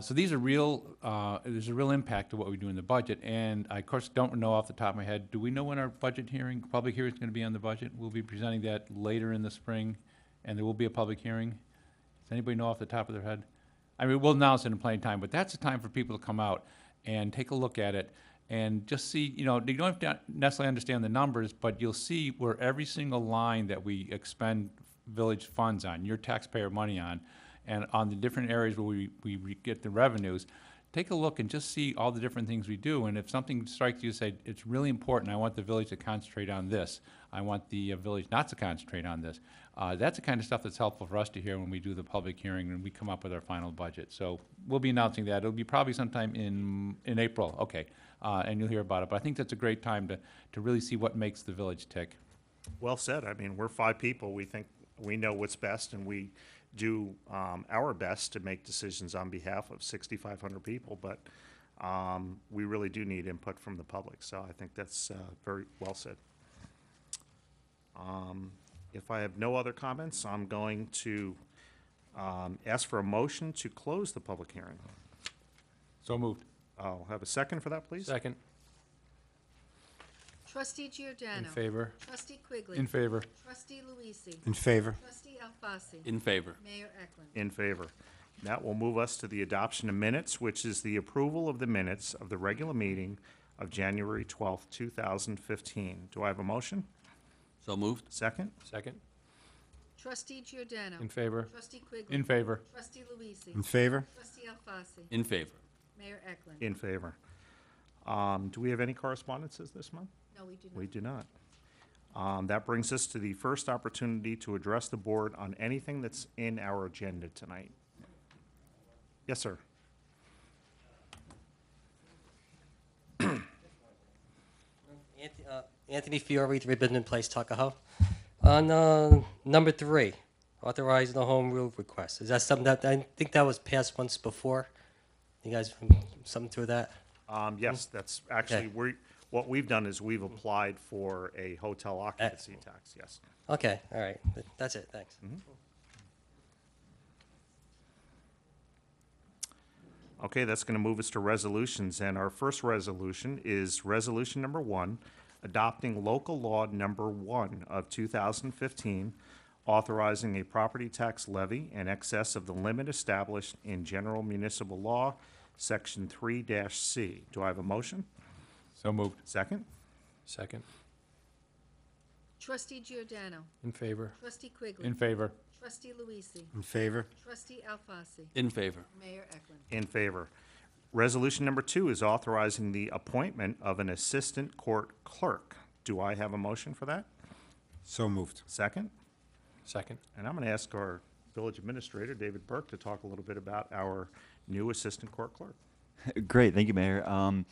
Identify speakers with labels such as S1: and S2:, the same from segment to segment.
S1: So these are real, uh, there's a real impact to what we do in the budget, and I of course don't know off the top of my head, do we know when our budget hearing, public hearing is gonna be on the budget? We'll be presenting that later in the spring, and there will be a public hearing. Does anybody know off the top of their head? I mean, we'll announce it in plain time, but that's the time for people to come out and take a look at it and just see, you know, you don't have to necessarily understand the numbers, but you'll see where every single line that we expend village funds on, your taxpayer money on, and on the different areas where we, we re- get the revenues, take a look and just see all the different things we do, and if something strikes you, say, it's really important, I want the village to concentrate on this, I want the uh, village not to concentrate on this, uh, that's the kind of stuff that's helpful for us to hear when we do the public hearing and we come up with our final budget. So we'll be announcing that, it'll be probably sometime in, in April, okay, uh, and you'll hear about it, but I think that's a great time to, to really see what makes the village tick.
S2: Well said. I mean, we're five people. We think we know what's best, and we do um, our best to make decisions on behalf of 6,500 people. But um, we really do need input from the public. So I think that's uh, very well said. Um, if I have no other comments, I'm going to um, ask for a motion to close the public hearing.
S1: So moved.
S2: I'll have a second for that, please.
S1: Second.
S3: Trustee Giordano.
S1: In favor?
S3: Trustee Quigley.
S1: In favor.
S3: Trustee Luisi.
S4: In favor.
S3: Trustee Alfasi.
S5: In favor.
S3: Mayor Eklund.
S2: In favor. That will move us to the adoption of minutes, which is the approval of the minutes of the regular meeting of January 12th, 2015. Do I have a motion?
S5: So moved.
S2: Second?
S1: Second.
S3: Trustee Giordano.
S1: In favor?
S3: Trustee Quigley.
S1: In favor.
S3: Trustee Luisi.
S4: In favor.
S3: Trustee Alfasi.
S5: In favor.
S3: Mayor Eklund.
S2: In favor. Um, Do we have any correspondences this month?
S3: No, we do not.
S2: We do not. Um, That brings us to the first opportunity to address the board on anything that's in our agenda tonight. Yes, sir.
S6: Anth- uh, Anthony Fiore, 3 Bidman Place, Tuckahoe. On uh, number three, authorizing the home rule request. Is that something that, I think that was passed once before? You guys, something to that?
S2: Um, Yes, that's actually,
S6: Okay.
S2: we, what we've done is we've applied for a hotel occupancy tax, yes.
S6: Okay, all right. Th- That's it, thanks.
S2: Okay, that's going to move us to resolutions, and our first resolution is Resolution Number One, adopting local law number one of 2015, authorizing a property tax levy in excess of the limit established in general municipal law, Section 3-C. Do I have a motion?
S1: So moved.
S2: Second?
S1: Second.
S3: Trustee Giordano.
S1: In favor.
S3: Trustee Quigley.
S1: In favor.
S3: Trustee Luisi.
S4: In favor.
S3: Trustee Alfasi.
S5: In favor.
S3: Mayor Eklund.
S2: In favor. Resolution Number Two is authorizing the appointment of an Assistant Court Clerk. Do I have a motion for that?
S4: So moved.
S2: Second?
S1: Second.
S2: And I'm going to ask our village administrator, David Burke, to talk a little bit about our new assistant court clerk.
S7: Great, thank you, Mayor. Um,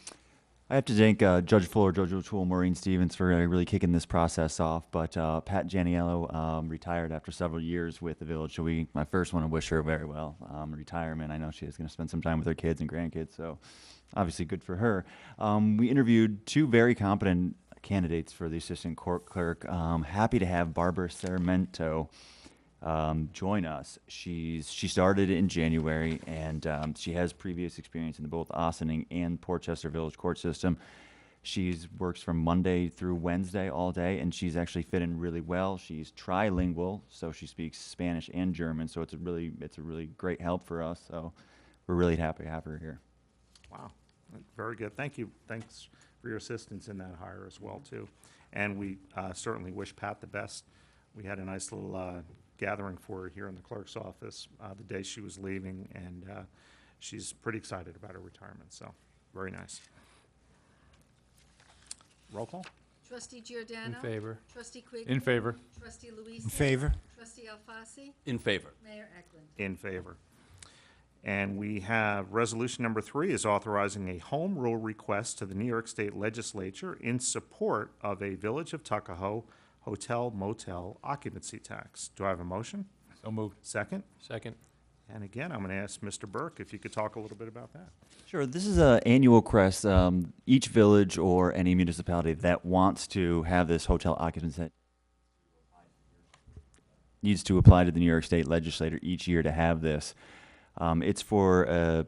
S7: I have to thank uh, Judge Fuller, Judge O'Toole, Maureen Stevens for uh, really kicking this process off. But uh, Pat Janiello um, retired after several years with the village, so we I first want to wish her very well um, retirement. I know she is going to spend some time with her kids and grandkids, so obviously good for her. Um, we interviewed two very competent candidates for the assistant court clerk. Um, happy to have Barbara Sarmento um, join us. She's she started in January, and um, she has previous experience in both Ossining and Portchester Village court system. She's works from Monday through Wednesday all day, and she's actually fit in really well. She's trilingual, so she speaks Spanish and German. So it's a really it's a really great help for us. So we're really happy to have her here.
S2: Wow, very good. Thank you. Thanks for your assistance in that hire as well, too. And we uh, certainly wish Pat the best. We had a nice little uh, gathering for her here in the clerk's office uh, the day she was leaving, and uh, she's pretty excited about her retirement, so very nice. Roll call?
S3: Trustee Giordano.
S1: In favor.
S3: Trustee Quigley.
S1: In favor.
S3: Trustee
S4: In
S3: Luisi.
S4: favor.
S3: Trustee Alfasi.
S5: In favor.
S3: Mayor Eklund.
S2: In favor. And we have resolution number three is authorizing a home rule request to the New York State Legislature in support of a Village of Tuckahoe hotel motel occupancy tax. Do I have a motion?
S1: So moved.
S2: Second?
S1: Second.
S2: And again, I'm going to ask Mr. Burke if you could talk a little bit about that.
S7: Sure. This is an annual crest. Um, each village or any municipality that wants to have this hotel occupancy needs to apply to the New York State Legislature each year to have this. Um, it's for a